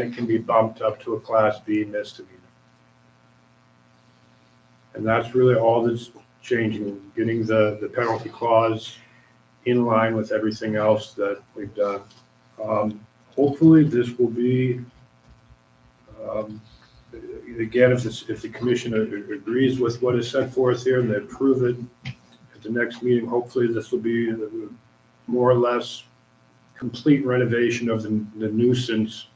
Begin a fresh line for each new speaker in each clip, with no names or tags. it can be bumped up to a Class B misdemeanor. And that's really all that's changing, getting the, the penalty clause in line with everything else that we've done. Um, Hopefully, this will be, um, again, if this, if the commission a- agrees with what is set forth here and they approve it at the next meeting, hopefully this will be the- more or less complete renovation of the the nuisance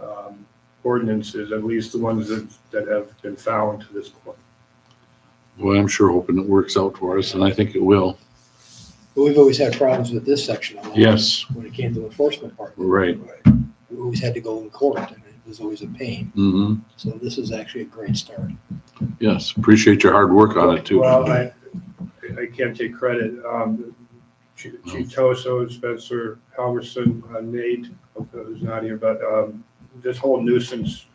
um, ordinances, at least the ones that, that have been found to this point.
Boy, I'm sure hoping it works out for us, and I think it will.
But we've always had problems with this section. of law
Yes,
When it came to enforcement part.
Right.
We always had to go in court, and it was always a pain.
hmm
So this is actually a great start.
yes. Appreciate your hard work on it too.
Well, I, I can't take credit. Um, Chief Chief Toso, Spencer Halverson, uh, Nate, who's not here, but, um, this whole nuisance,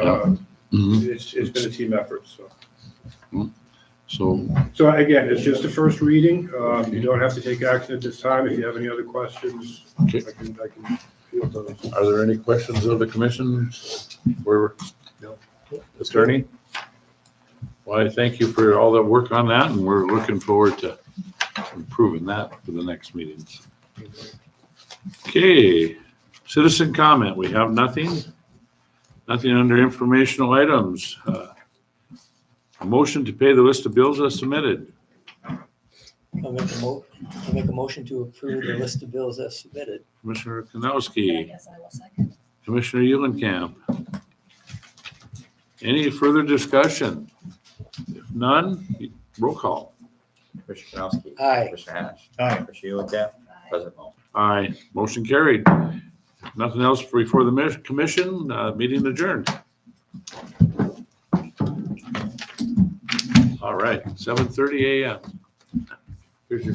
uh,
Mhm.
it's, it's been a team effort, so.
So,
So again, it's just the first reading. Um, you don't have to take action at this time. If you have any other questions, I
Okay.
can, I can field those.
are there any questions of the commission? Where,
No.
attorney? Well, I thank you for all the work on that, and we're looking forward to improving that for the next meetings. Okay, citizen comment. We have nothing. Nothing under informational items. Uh, a Motion to pay the list of bills as submitted.
I'll make a mo, I'll make a motion to approve the list of bills as submitted.
Commissioner
I
Kanowski,
guess I will second.
Commissioner Eulenkamp. Any further discussion? If none, roll call.
Commissioner Knosky.
Aye.
Commissioner Hatch.
Aye.
Commissioner Ulicap. President Moe.
Aye, motion carried. Nothing else before the mis- commission, uh, meeting adjourned. All right, seven thirty AM. Here's your